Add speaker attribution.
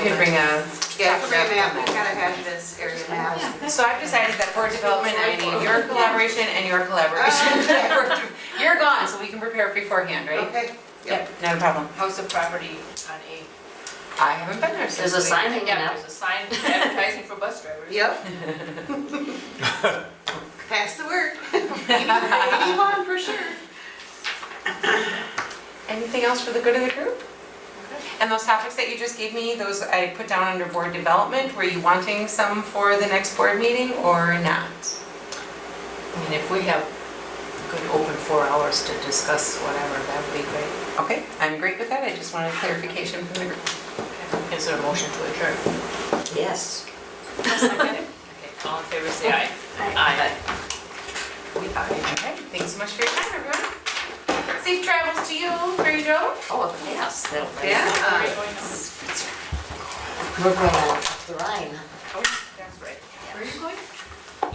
Speaker 1: You can bring a,
Speaker 2: Yeah, we're gonna have, we gotta have this area map.
Speaker 1: so I've decided that for development, I need your collaboration and your collaboration. You're gone, so we can prepare beforehand, right?
Speaker 2: Okay,
Speaker 1: Yep, not a problem.
Speaker 3: House of property on eight.
Speaker 1: I haven't been there since.
Speaker 4: There's a
Speaker 1: we-
Speaker 4: sign hanging
Speaker 3: Yeah,
Speaker 4: up.
Speaker 3: there's a sign advertising for bus drivers.
Speaker 2: yep. Pass the word. Eighty-one for sure.
Speaker 1: Anything else for the good of the group? And those topics that you just gave me, those I put down under board development, were you wanting some for the next board meeting or not?
Speaker 3: I mean, if we have good open four hours to discuss whatever, that would be great.
Speaker 1: Okay, I'm great with that, I just wanted clarification from the group.
Speaker 3: Is there a motion to adjourn?
Speaker 4: Yes.
Speaker 3: Okay, all in favor, say aye. Aye. We are.
Speaker 1: Okay, thanks so much for your time, everyone. Safe travels to you, Mary Jo.
Speaker 4: Oh, yes, that'll be.
Speaker 2: Yeah.
Speaker 1: Uh,
Speaker 4: We're going up the Rhine.
Speaker 3: Oh, that's right.
Speaker 1: Where are you going?